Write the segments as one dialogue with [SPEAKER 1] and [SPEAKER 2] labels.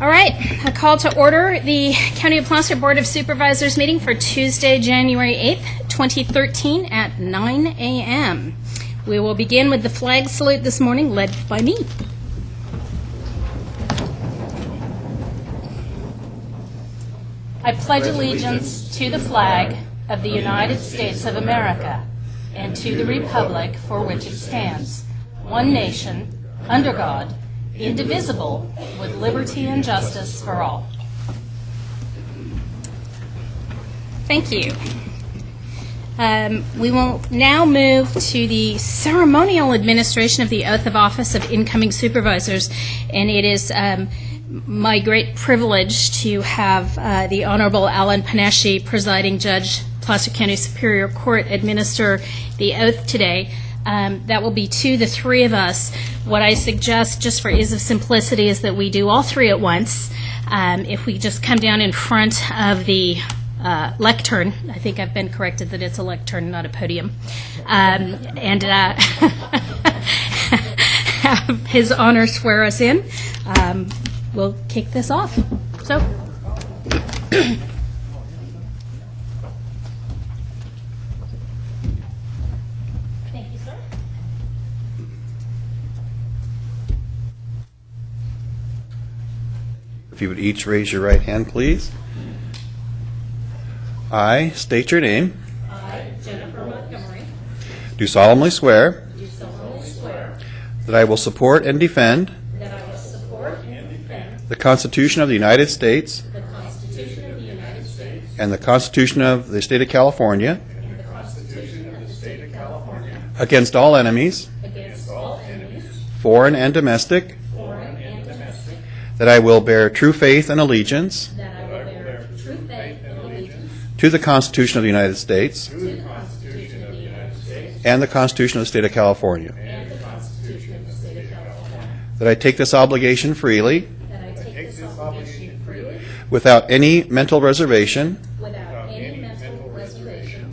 [SPEAKER 1] All right, a call to order the County of Placer Board of Supervisors meeting for Tuesday, January 8th, 2013 at 9 a.m. We will begin with the flag salute this morning led by me. I pledge allegiance to the flag of the United States of America and to the republic for which it stands, one nation, under God, indivisible, with liberty and justice for all. Thank you. Um, We will now move to the ceremonial administration of the oath of office of incoming supervisors, and it is um, my great privilege to have uh, the Honorable Alan Panashi, presiding judge, Placer County Superior Court, administer the oath today. Um, That will be to the three of us. What I suggest, just for ease of simplicity, is that we do all three at once. Um, If we just come down in front of the uh, lectern. I think I've been corrected that it's a lectern, not a podium. Um, and uh, have his honor swear us in. Um, we'll kick this off. So, thank you, sir.
[SPEAKER 2] If you would each raise your right hand, please. I state your name. I, Jennifer Montgomery. Do solemnly swear. That I will support and defend. The Constitution of the United States. And the Constitution of the State of California. Against all enemies. Foreign and domestic. That I will bear true faith and allegiance. To the Constitution of the United States. And the Constitution of the State of California. That I take this obligation freely. Without any mental reservation.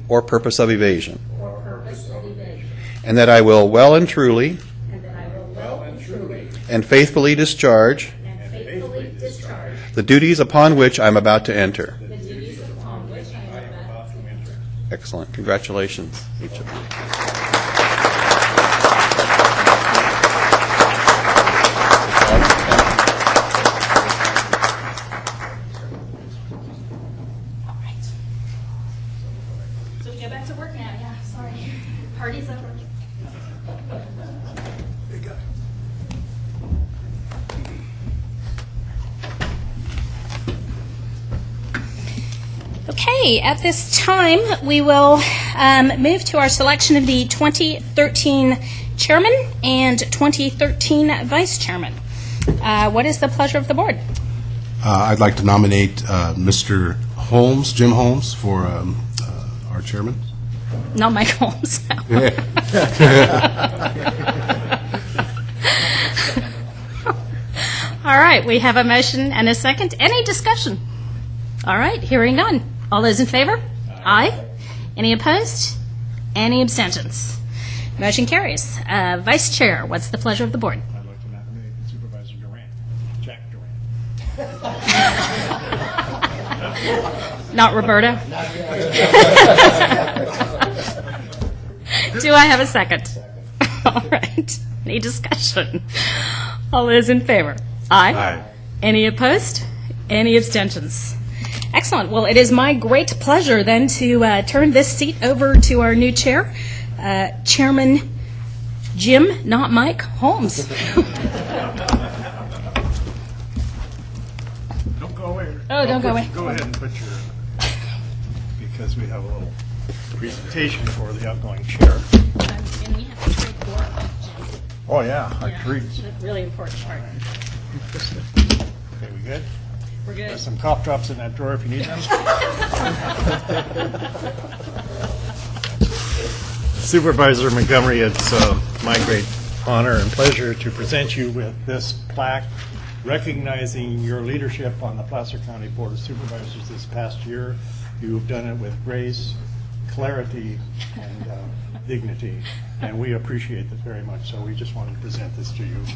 [SPEAKER 2] Or purpose of evasion. And that I will well and truly. And faithfully discharge. The duties upon which I'm about to enter. Excellent. Congratulations, each of you.
[SPEAKER 1] All right. So we go back to work now. Yeah, sorry. Party's over. Okay, at this time, we will um, move to our selection of the 2013 chairman and 2013 vice chairman. Uh, What is the pleasure of the board?
[SPEAKER 3] Uh, I'd like to nominate uh, Mr. Holmes, Jim Holmes, for um, uh, our chairman.
[SPEAKER 1] Not Mike Holmes. All right, we have a motion and a second. Any discussion? All right, hearing none. All those in favor? Aye. Any opposed? Any abstentions? Motion carries. Uh, Vice Chair, what's the pleasure of the board?
[SPEAKER 4] I'd like to nominate Supervisor Durant, Jack Durant.
[SPEAKER 1] Not Roberta? Do I have a second? All right. Any discussion? All those in favor? Aye.
[SPEAKER 3] Aye.
[SPEAKER 1] Any opposed? Any abstentions? Excellent. Well, it is my great pleasure then to uh, turn this seat over to our new chair, uh, Chairman Jim, not Mike, Holmes.
[SPEAKER 4] Don't go away.
[SPEAKER 1] Oh, don't go
[SPEAKER 4] put-
[SPEAKER 1] away.
[SPEAKER 4] Go ahead and put your, because we have a little presentation for the outgoing chair. Oh, yeah, I agree.
[SPEAKER 1] Really important part.
[SPEAKER 4] Okay, we good?
[SPEAKER 1] We're good.
[SPEAKER 4] There's some cough drops in that drawer if you need them. Supervisor Montgomery, it's uh, my great honor and pleasure to present you with this plaque recognizing your leadership on the Placer County Board of Supervisors this past year. You've done it with grace, clarity, and uh, dignity, and we appreciate that very much. So we just wanted to present this to you.